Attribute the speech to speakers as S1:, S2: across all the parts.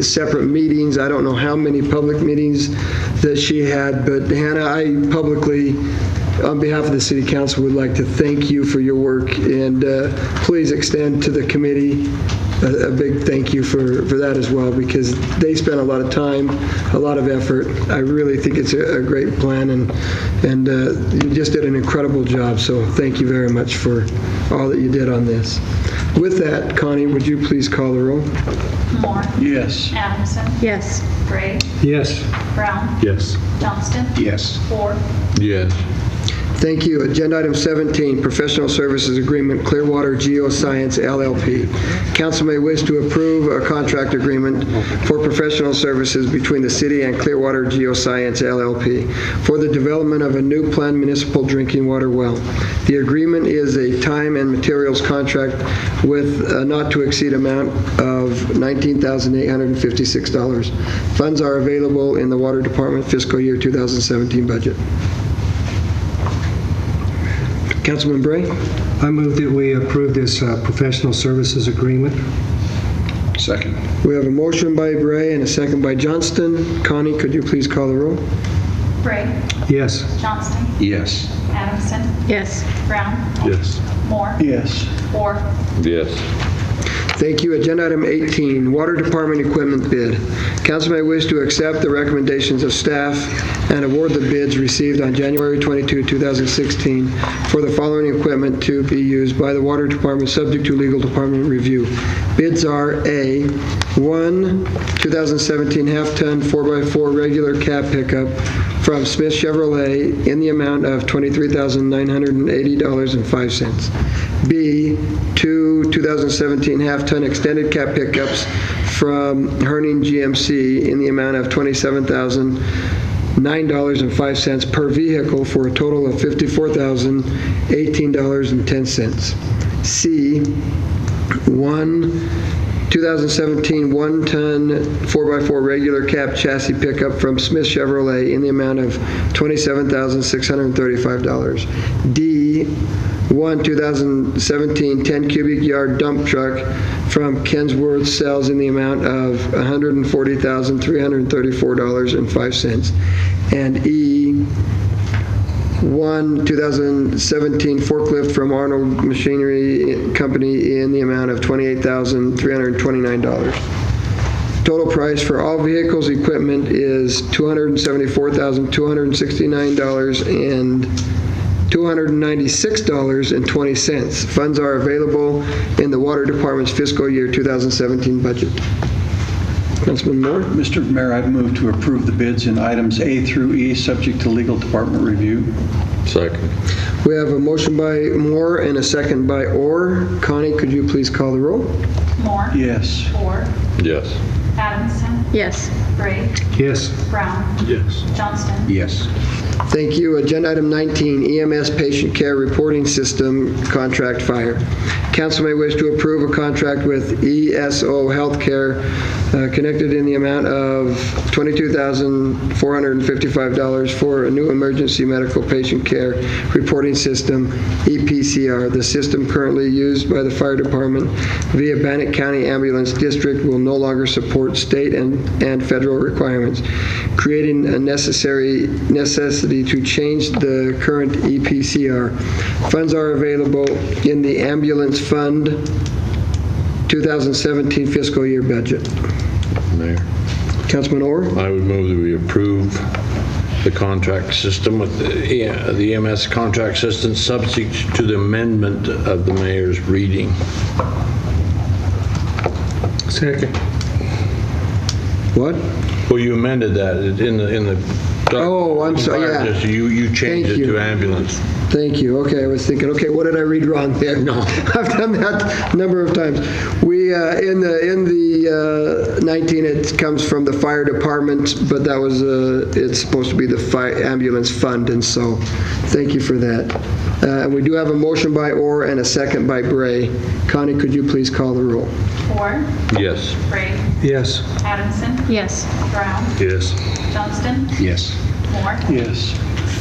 S1: separate meetings. I don't know how many public meetings that she had, but Hannah, I publicly, on behalf of the city council, would like to thank you for your work, and uh, please extend to the committee a a big thank you for, for that as well, because they spent a lot of time, a lot of effort. I really think it's a a great plan, and, and uh, you just did an incredible job, so thank you very much for all that you did on this. With that, Connie, would you please call the roll?
S2: Moore.
S3: Yes.
S2: Adamson.
S4: Yes.
S2: Gray.
S5: Yes.
S2: Brown.
S5: Yes.
S2: Johnston.
S3: Yes.
S2: Ford.
S5: Yes.
S1: Thank you. Agenda item 17, Professional Services Agreement Clearwater Geoscience LLP. Council may wish to approve a contract agreement for professional services between the city and Clearwater Geoscience LLP for the development of a new planned municipal drinking water well. The agreement is a time and materials contract with a not-to-exceed amount of $19,856. Funds are available in the Water Department fiscal year 2017 budget. Councilman Bray?
S5: I move that we approve this uh, professional services agreement.
S3: Second.
S1: We have a motion by Bray and a second by Johnston. Connie, could you please call the roll?
S2: Gray.
S5: Yes.
S2: Johnston.
S3: Yes.
S2: Adamson.
S4: Yes.
S2: Brown.
S5: Yes.
S2: Moore.
S3: Yes.
S2: Ford.
S6: Yes.
S1: Thank you. Agenda item 18, Water Department Equipment Bid. Council may wish to accept the recommendations of staff and award the bids received on January 22, 2016 for the following equipment to be used by the Water Department, subject to legal department review. Bids are A, one 2017 half-ton 4x4 regular cab pickup from Smith Chevrolet in the amount of $23,980.05. B, two 2017 half-ton extended cab pickups from Herning GMC in the amount of $27,009.05 per vehicle for a total of $54,018.10. C, one 2017 one-ton 4x4 regular cab chassis pickup from Smith Chevrolet in the amount of $27,635. D, one 2017 10 cubic yard dump truck from Kensworth Sales in the amount of $140,334.05. And E, one 2017 forklift from Arnold Machinery Company in the amount of $28,329. Total price for all vehicles, equipment is $274,269 and $296.20. Funds are available in the Water Department's fiscal year 2017 budget. Councilman Moore?
S3: Mr. Mayor, I'd move to approve the bids in items A through E, subject to legal department review.
S6: Second.
S1: We have a motion by Moore and a second by Orr. Connie, could you please call the roll?
S2: Moore.
S3: Yes.
S2: Ford.
S6: Yes.
S2: Adamson.
S4: Yes.
S2: Gray.
S5: Yes.
S2: Brown.
S5: Yes.
S2: Johnston.
S3: Yes.
S1: Thank you. Agenda item 19, EMS Patient Care Reporting System Contract Fire. Council may wish to approve a contract with ESO Healthcare uh, connected in the amount of $22,455 for a new emergency medical patient care reporting system, EPCR. The system currently used by the fire department via Bannock County Ambulance District will no longer support state and and federal requirements, creating a necessary necessity to change the current E EPCR. Funds are available in the ambulance fund 2017 fiscal year budget.
S6: Mayor,
S1: Councilman Orr?
S6: I would move that we approve the contract system with the E- the EMS contract system subject to the amendment of the mayor's reading.
S5: Second.
S1: What?
S6: Well, you amended that in the, in the.
S1: Oh, I'm sorry, yeah.
S6: Just You, you changed
S1: Thank
S6: it
S1: you.
S6: to ambulance.
S1: Thank you. Okay, I was thinking, okay, what did I read wrong there? No. I've done that a number of times. We, uh, in the, in the uh, 19, it comes from the fire department, but that was, uh, it's supposed to be the fire ambulance fund, and so, thank you for that. Uh, And we do have a motion by Orr and a second by Bray. Connie, could you please call the roll?
S2: Ford.
S6: Yes.
S2: Gray.
S5: Yes.
S2: Adamson.
S4: Yes.
S2: Brown.
S6: Yes.
S2: Johnston.
S3: Yes.
S2: Moore.
S3: Yes.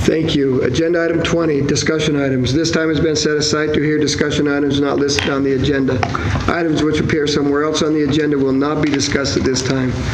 S1: Thank you. Agenda item 20, discussion items. This time has been set aside to hear discussion items not listed on the agenda. Items which appear somewhere else on the agenda will not be discussed at this time.